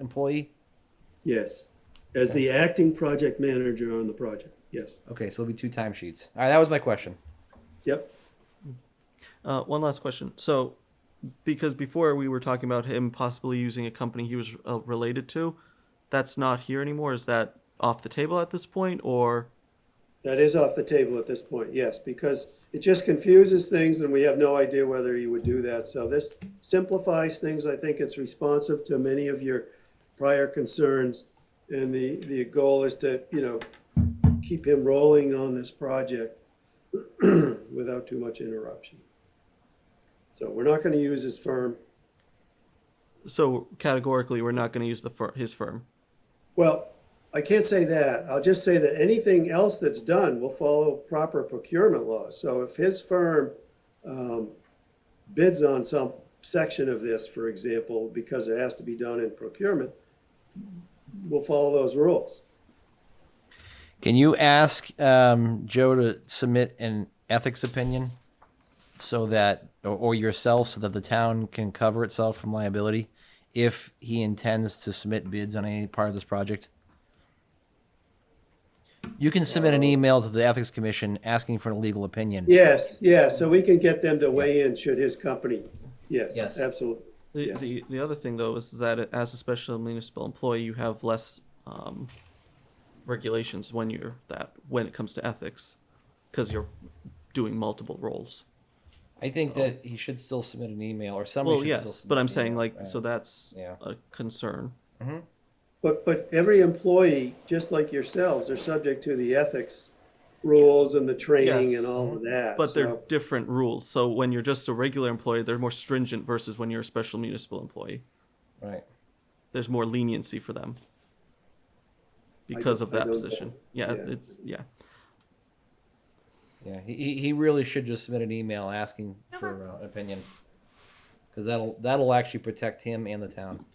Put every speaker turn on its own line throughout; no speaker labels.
employee?
Yes, as the acting project manager on the project, yes,
Okay, so it'll be two timesheets. All right, that was my question.
yep.
Uh, one last question. So, because before we were talking about him possibly using a company he was uh, related to, that's not here anymore. Is that off the table at this point, or
That is off the table at this point, yes, because it just confuses things and we have no idea whether he would do that. So this simplifies things. I think it's responsive to many of your prior concerns. And the, the goal is to, you know, keep him rolling on this project without too much interruption. So we're not going to use his firm.
so categorically we're not going to use the fir- his firm?
Well, I can't say that. I'll just say that anything else that's done will follow proper procurement laws. So if his firm um, bids on some section of this, for example, because it has to be done in procurement, we'll follow those rules.
Can you ask um, Joe to submit an ethics opinion so that, or, or yourself, so that the town can cover itself from liability if he intends to submit bids on any part of this project? You can submit an email to the Ethics Commission asking for a legal opinion.
Yes, yeah, so we can get them to weigh in should his company, yes,
Yes.
absolutely.
The,
Yes.
the the other thing though is that as a special municipal employee, you have less um, regulations when you're that when it comes to ethics, because you're doing multiple roles.
I think that he should still submit an email or somebody
Well,
should still
yes,
submit
but I'm
an
saying
email.
like
Right.
so that's
Yeah.
a concern.
But, but every employee, just like yourselves, are subject to the ethics rules and the training
Yes.
and all of that.
But they're
so-
different rules. So when you're just a regular employee, they're more stringent versus when you're a special municipal employee.
Right.
There's more leniency for them because of
I
that
don't
position.
know.
Yeah,
Yeah.
it's yeah.
Yeah, he- he, he really should just submit an email asking
Uh-huh.
for uh, an opinion, because that'll that'll actually protect him and the town.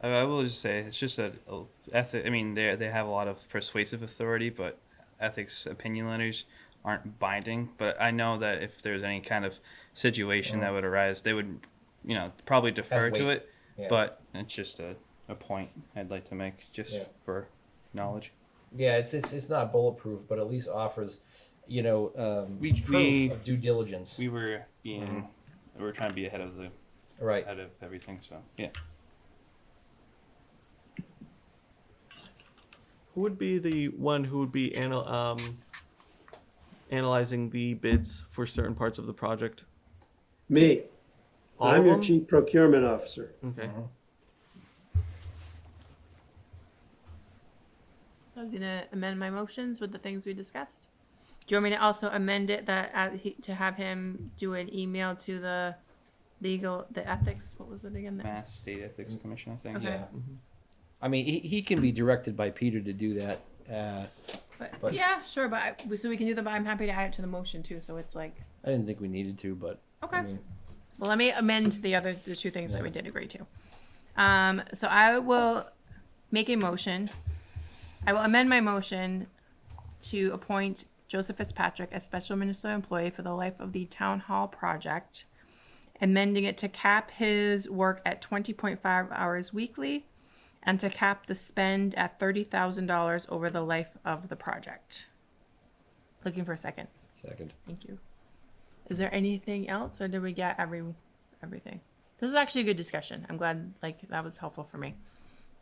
I, I will just say it's just a, a ethic. I mean, they they have a lot of persuasive authority, but ethics opinion letters aren't binding. But I know that if there's any kind of situation
Mm.
that would arise, they would, you know, probably defer to
weight.
it.
Yeah.
But it's just a, a point I'd like to make just
Yeah.
for knowledge.
Yeah, it's it's, it's not bulletproof, but at least offers, you know, um,
We- proof we-
of
of
due diligence.
We were being, we were trying to be ahead of the
right.
ahead of everything. So Mm-hmm. yeah,
Who would be the one who would be anal- um, analyzing the bids for certain parts of the project?
Me.
All
I'm
of
your
them?
chief procurement officer.
Okay.
I was gonna amend my motions with the things we discussed. Do you want me to also amend it that, uh, he- to have him do an email to the legal, the ethics, what was it again? The-
Mass State
Mm.
Ethics Commission, I think.
Okay.
Yeah. I mean, he, he can be directed by Peter to do that. Uh, but-
But, yeah, sure, but, I- so we can do them, but I'm happy to add it to the motion too, so it's like,
I didn't think we needed to, but I
okay.
mean,
Well, let me amend the other, the two things that we did agree to. Um, so I will make a motion. I will amend my motion to appoint Joseph Fitzpatrick as special municipal employee for the life of the town hall project. Amending it to cap his work at twenty point five hours weekly and to cap the spend at thirty thousand dollars over the life of the project. Looking for a second.
second.
Thank you. Is there anything else, or did we get every everything? This was actually a good discussion. I'm glad, like that was helpful for me.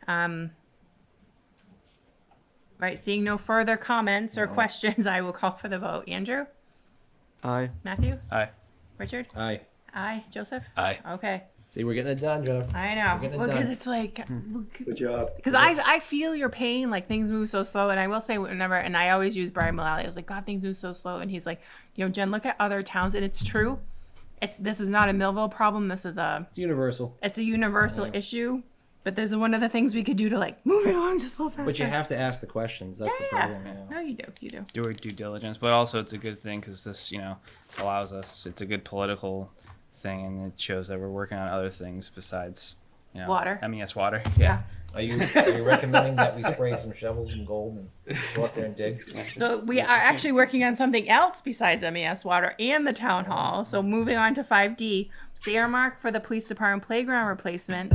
Um, right, seeing no further comments or questions, I will call for the vote. Andrew,
Aye.
Matthew,
Aye.
Richard,
Aye.
aye, Joseph,
Aye.
okay.
See, we're getting it done, Joe.
I know
We're getting it
because
done.
it's like
Good job.
Because I I feel your pain, like things move so slow. And I will say whenever, and I always use Brian Mullally. I was like, God, things move so slow. And he's like, you know, Jen, look at other towns, and it's true. It's this is not a Millville problem. This is a
It's universal,
it's a universal issue. But there's one of the things we could do to like move it along just a little faster.
but you have to ask the questions. That's the
yeah.
problem. Yeah.
No, you do, you do.
do our due diligence, but also it's a good thing because this, you know, allows us. It's a good political thing, and it shows that we're working on other things besides, you know,
Water.
MES water. Yeah.
Are you are you recommending that we spray some shovels and gold and go out there and dig?
So we are actually working on something else besides MES water and the town hall. So moving on to 5D, the earmark for the police department playground replacement